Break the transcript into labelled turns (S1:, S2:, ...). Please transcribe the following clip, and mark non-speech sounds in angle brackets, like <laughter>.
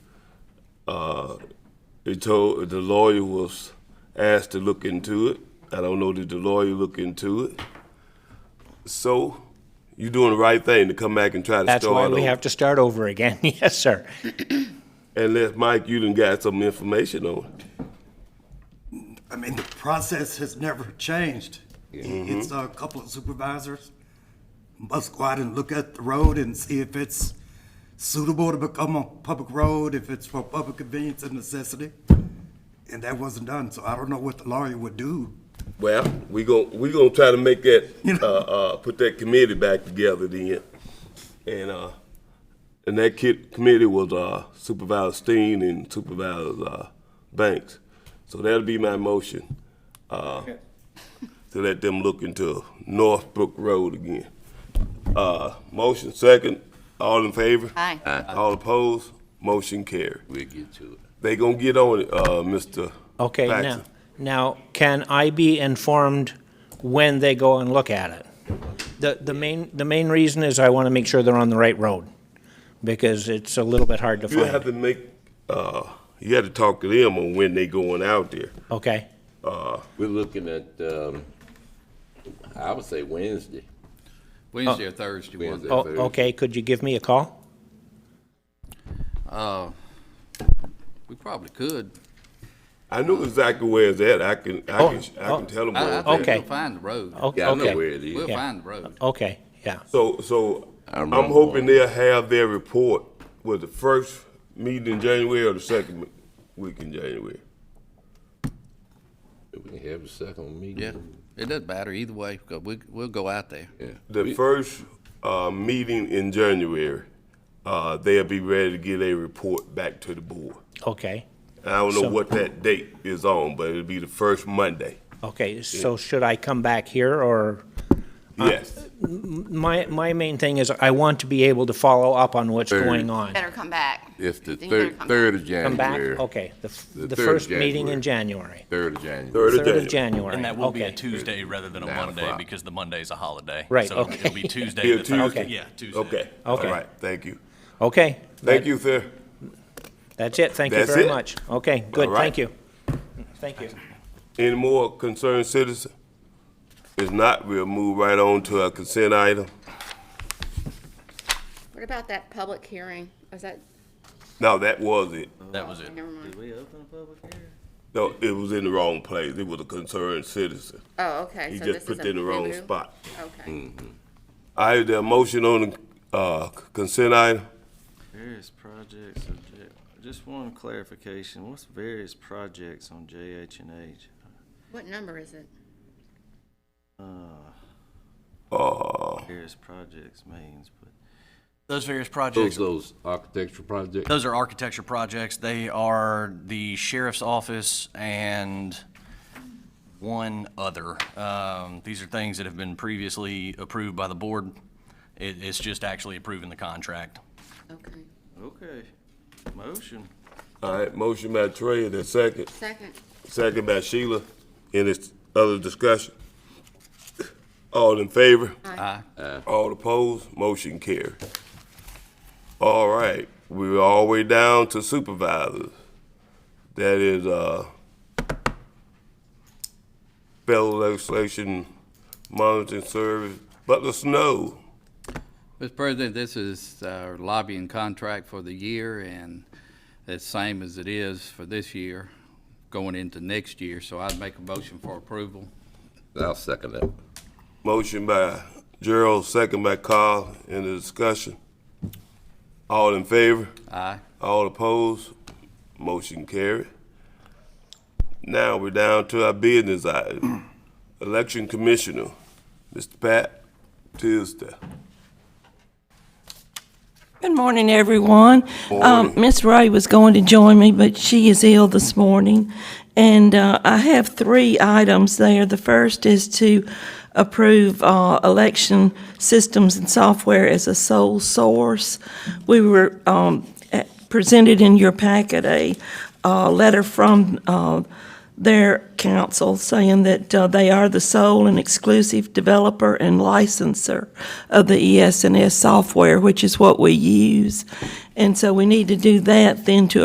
S1: Uh, he told the lawyer was asked to look into it. I don't know did the lawyer look into it. So you doing the right thing to come back and try to
S2: That's
S1: start
S2: why we
S1: over.
S2: have to start over again. <laughs> Yes, sir.
S1: Unless Mike, you done got some information on it.
S3: I mean, the process has never changed. It's a couple of supervisors must go out and look at the road and see if it's suitable to become a public road, if it's for public convenience and necessity. And that wasn't done, so I don't know what the lawyer would do.
S1: Well, we gon' we gonna try to make that
S3: You
S1: uh,
S3: know.
S1: uh, put that committee back together then, and uh, and that kid committee was uh, Supervisor Steen and Supervisor uh, Banks, so that'll be my motion uh, to let them look into Northbrook Road again. Uh, motion second, all in favor?
S4: Aye.
S1: All opposed? Motion carried.
S5: We'll get to it.
S1: They gonna get on it, uh, Mr.
S2: Okay, now,
S1: Paxton.
S2: now, can I be informed when they go and look at it? The, the main, the main reason is I want to make sure they're on the right road, because it's a little bit hard to
S1: You have
S2: find.
S1: to make, uh, you have to talk to them on when they going out there.
S2: Okay,
S5: We're looking at, um, I would say Wednesday.
S6: Wednesday or Thursday, one
S5: Wednesday,
S6: day.
S2: oh,
S5: Thursday.
S2: okay, could you give me a call? Oh.
S6: We probably could.
S1: I know exactly where it's at. I can, I can, I
S2: Oh, oh,
S1: can tell them
S6: I, I
S1: where it's at.
S6: think
S2: Okay.
S6: we'll find the road.
S2: O-
S5: Yeah, I know where
S2: Okay,
S5: it
S6: We'll
S5: is.
S2: yeah. Oh.
S6: find the road.
S2: okay, yeah,
S1: So, so
S5: I
S1: I'm
S5: remember
S1: hoping
S5: one.
S1: they'll have their report with the first meeting in January or the second week in January.
S5: We can have a second meeting.
S6: Yeah, it doesn't matter either way, because we, we'll go out there.
S5: Yeah.
S1: The
S5: We-
S1: first, uh, meeting in January, uh, they'll be ready to get a report back to the board.
S2: okay,
S1: I don't know
S2: So-
S1: what that date is on, but it'll be the first Monday.
S2: okay, so should I come back here, or? Uh,
S1: Yes.
S2: My, my main thing is I want to be able to follow up on what's
S5: Very-
S2: going on.
S4: Better come back.
S5: It's
S4: Then
S5: the
S4: you better
S5: third,
S4: come
S5: third of
S2: Come back,
S5: January.
S2: okay, the, f-
S5: The
S2: the
S5: third of
S2: first meeting in January,
S5: January. Third of January.
S1: Third of
S2: third of
S1: January.
S2: January,
S7: And that will be a
S2: okay.
S7: Tuesday rather than a
S5: Nine
S7: Monday
S5: o'clock.
S7: because the Monday is a holiday.
S2: Right,
S7: So it'll-
S2: okay.
S7: It'll be
S1: <laughs>
S7: Tuesday.
S1: Be a
S7: the third-
S1: Tuesday.
S7: Yeah, Tuesday.
S1: Okay. All
S2: Okay.
S1: right. Thank you.
S2: Okay,
S1: Thank you, sir.
S2: that's it, thank you
S1: That's
S2: very
S1: it.
S2: much. Okay, good,
S1: All right.
S2: thank you. Thank you.
S1: Any more concerned citizen? If not, we'll move right on to our consent item.
S4: What about that public hearing? Was that,
S1: No, that was it.
S7: That was it.
S4: never mind.
S1: No, it was in the wrong place. It was a concerned citizen.
S4: Oh, okay.
S1: He
S4: so
S1: just
S4: this is
S1: put
S4: a
S1: it in the wrong
S4: boo-boo?
S1: spot.
S5: Mm.
S4: Okay.
S1: I have the motion on the uh, consent item.
S8: Various projects of J, just one clarification, what's various projects on JH and H?
S4: What number is it?
S1: Uh,
S8: Ah, Various projects means, but
S7: Those various
S5: Those,
S7: projects,
S5: those architectural projects.
S7: those are architecture projects. They are the sheriff's office and one other. Um, These are things that have been previously approved by the board. It, it's just actually approving the contract.
S4: Okay.
S8: okay, motion.
S1: all right, motion by Trey, the second,
S4: Second.
S1: second by Sheila. Any other discussion? All in favor?
S6: Aye.
S1: All opposed, motion carried. All right, we're all the way down to supervisors. That is, uh, federal legislation monitoring service, Butler Snow.
S6: Mr. President, this is our lobbying contract for the year, and it's same as it is for this year, going into next year, so I'd make a motion for approval.
S5: I'll second that.
S1: Motion by Gerald, second by Carl, in the discussion. All in favor?
S6: Aye.
S1: All opposed, motion carried. Now we're down to our business item, election commissioner, Mr. Pat Tisdale.
S9: Good morning, everyone. Um, Miss Ray was going to join me, but she is ill this morning. And uh, I have three items there. The first is to approve uh, election systems and software as a sole source. We were um, at- presented in your packet a uh, letter from uh, their council saying that uh, they are the sole and exclusive developer and licenser of the E ES&S software, which is what we use. And so we need to do that then to